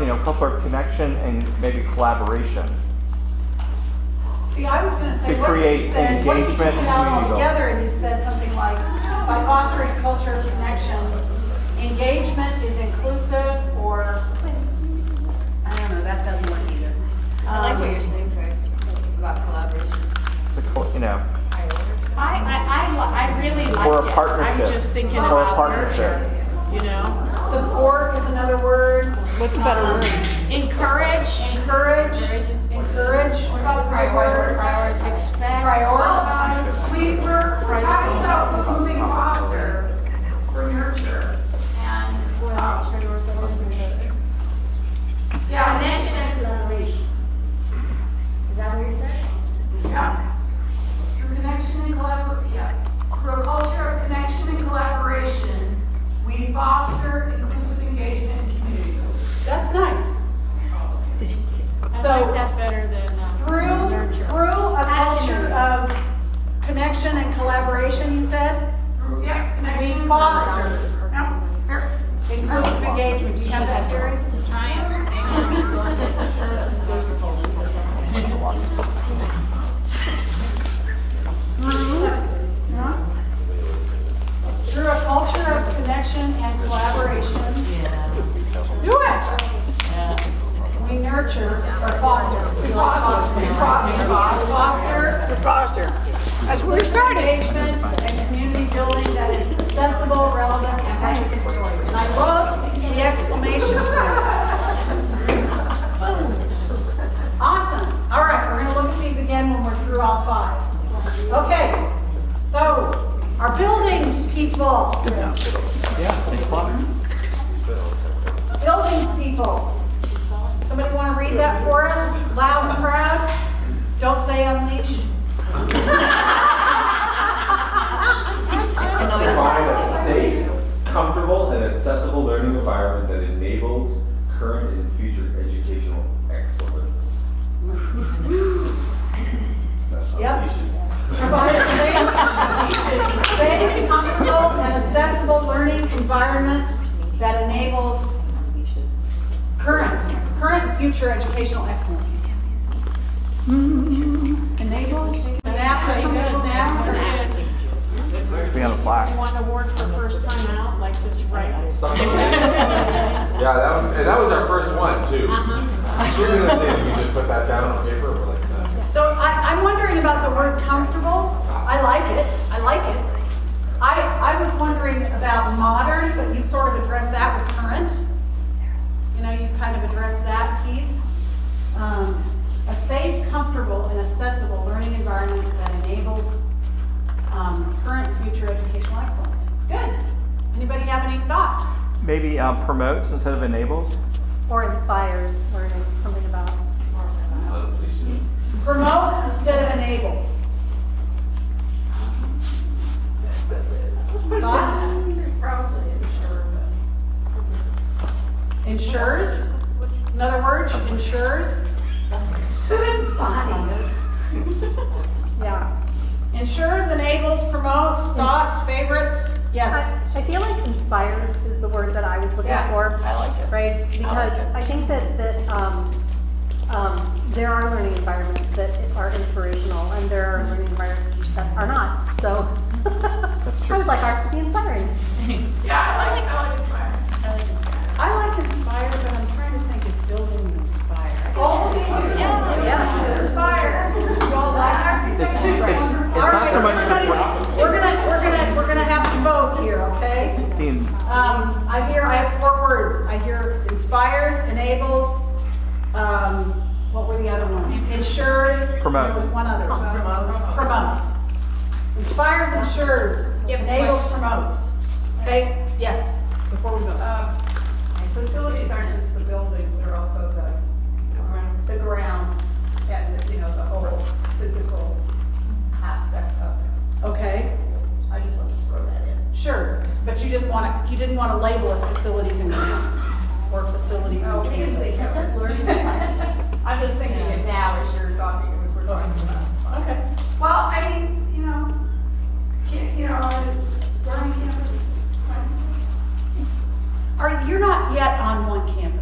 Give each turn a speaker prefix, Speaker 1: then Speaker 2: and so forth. Speaker 1: you know, some sort of connection and maybe collaboration.
Speaker 2: See, I was gonna say,
Speaker 1: To
Speaker 2: what if you
Speaker 1: create
Speaker 2: said, what if you
Speaker 1: engagement
Speaker 2: took it out
Speaker 1: between you both.
Speaker 2: altogether and you said something like, by fostering culture of connection, engagement is inclusive or, I don't know, that doesn't work either.
Speaker 3: I like what
Speaker 2: Um,
Speaker 3: you're saying, Greg, about collaboration.
Speaker 1: To col- You know,
Speaker 3: Higher order.
Speaker 2: Um,
Speaker 4: I, I, I, li- I really like it.
Speaker 1: Or a partnership.
Speaker 4: I'm just thinking
Speaker 1: Or a
Speaker 4: about
Speaker 1: partnership.
Speaker 4: nurture, you know?
Speaker 2: Support is another word.
Speaker 4: What's a better word? Encourage,
Speaker 2: Encourage, encourage, what about the right word?
Speaker 3: Prioritize.
Speaker 2: Prioritize.
Speaker 5: We were, we're talking about moving foster for nurture and, um, yeah, connection and collaboration.
Speaker 3: Is that what you're saying?
Speaker 5: Yeah. Through connection and collabor, yeah. Through a culture of connection and collaboration, we foster inclusive engagement and community. building.
Speaker 2: That's nice.
Speaker 4: I
Speaker 2: So-
Speaker 4: like that better than uh,
Speaker 2: Through,
Speaker 4: nurture.
Speaker 2: through a culture of connection and collaboration, you said?
Speaker 5: Through, yeah,
Speaker 2: We
Speaker 5: connection. and
Speaker 2: foster.
Speaker 5: collaboration. No, here.
Speaker 2: Inclusive engagement, do you have that, Jerry? Through a culture of connection and collaboration,
Speaker 4: Yeah,
Speaker 2: do it.
Speaker 4: yeah.
Speaker 2: We nurture or foster. We foster. We foster. We foster. We foster. That's where we started. Engagement and community building that is accessible, relevant, and brings joy. And I love the exclamation point. Awesome. All right, we're gonna look at these again when we're through all five. Okay, so our buildings, people.
Speaker 1: yeah, it's fun.
Speaker 2: Buildings people. Somebody want to read that for us, loud and proud? Don't say unleash.
Speaker 3: I know it's
Speaker 6: Provide
Speaker 3: not.
Speaker 6: a safe, comfortable, and accessible learning environment that enables current and future educational excellence. That's
Speaker 2: Yep.
Speaker 6: not issues.
Speaker 2: Provide a safe, safe, comfortable, and accessible learning environment that enables current, current and future educational excellence. Enables? Snap, snap.
Speaker 1: Be on the black.
Speaker 4: You want an award for first time out, like just right? Uh-huh.
Speaker 6: Something. Yeah, that was, and that was our first one too. We We're gonna say, we just put that down on paper, we're like, no.
Speaker 2: So I, I'm wondering about the word comfortable. I like it, I like it. I, I was wondering about modern, but you sort of addressed that with current. You know, you kind of addressed that piece. Um, A safe, comfortable, and accessible learning environment that enables um, current, and future educational excellence. Good. Anybody have any thoughts?
Speaker 1: Maybe um, promotes instead of enables.
Speaker 7: Or inspires learning, something about.
Speaker 6: Unleashes.
Speaker 2: Promotes instead of enables. Thoughts?
Speaker 5: There's probably a share of us.
Speaker 2: Ensures? Another word, ensures? Student bodies. Yeah. Ensures, enables, promotes, thoughts, favorites? Yes.
Speaker 7: I I feel like inspires is the word that I was looking
Speaker 2: Yeah,
Speaker 7: for.
Speaker 2: I like it.
Speaker 7: Right? Because I think that, that, um, um, there are learning environments that are inspirational and there are learning environments that are not, so. I
Speaker 1: true.
Speaker 7: would like ours to be inspiring.
Speaker 5: Yeah, I like, I like inspiring.
Speaker 2: I like inspire, but I'm trying to think if buildings inspire.
Speaker 5: All the things.
Speaker 7: Yeah.
Speaker 5: Inspire.
Speaker 2: You all like
Speaker 1: It's,
Speaker 2: architecture?
Speaker 1: it's, it's
Speaker 2: All
Speaker 1: not
Speaker 2: right,
Speaker 1: so much
Speaker 2: everybody's-
Speaker 1: the problem.
Speaker 2: We're gonna, we're gonna, we're gonna have to vote here, okay?
Speaker 1: It's the in-
Speaker 2: Um, I hear, I have four words. I hear inspires, enables, um, what were the other ones? Ensures.
Speaker 1: Promotes.
Speaker 2: There was one other. Promotes. Promotes. Inspires, ensures,
Speaker 3: You have a
Speaker 2: enables,
Speaker 3: question?
Speaker 2: promotes. Okay, yes, before we go.
Speaker 5: Um, Facilities aren't just the buildings, they're also the, the grounds and, you know, the whole physical aspect of it.
Speaker 2: Okay,
Speaker 5: I just wanted to throw that in.
Speaker 2: sure, but you didn't wanna, you didn't wanna label it facilities and grounds or facilities and
Speaker 5: Oh, because they
Speaker 2: campus.
Speaker 5: kept us learning. I'm just thinking it now as you're talking, as we're talking about.
Speaker 2: Okay.
Speaker 5: Well, I mean, you know, can't, you know, learning campus.
Speaker 2: All right, you're not yet on one campus.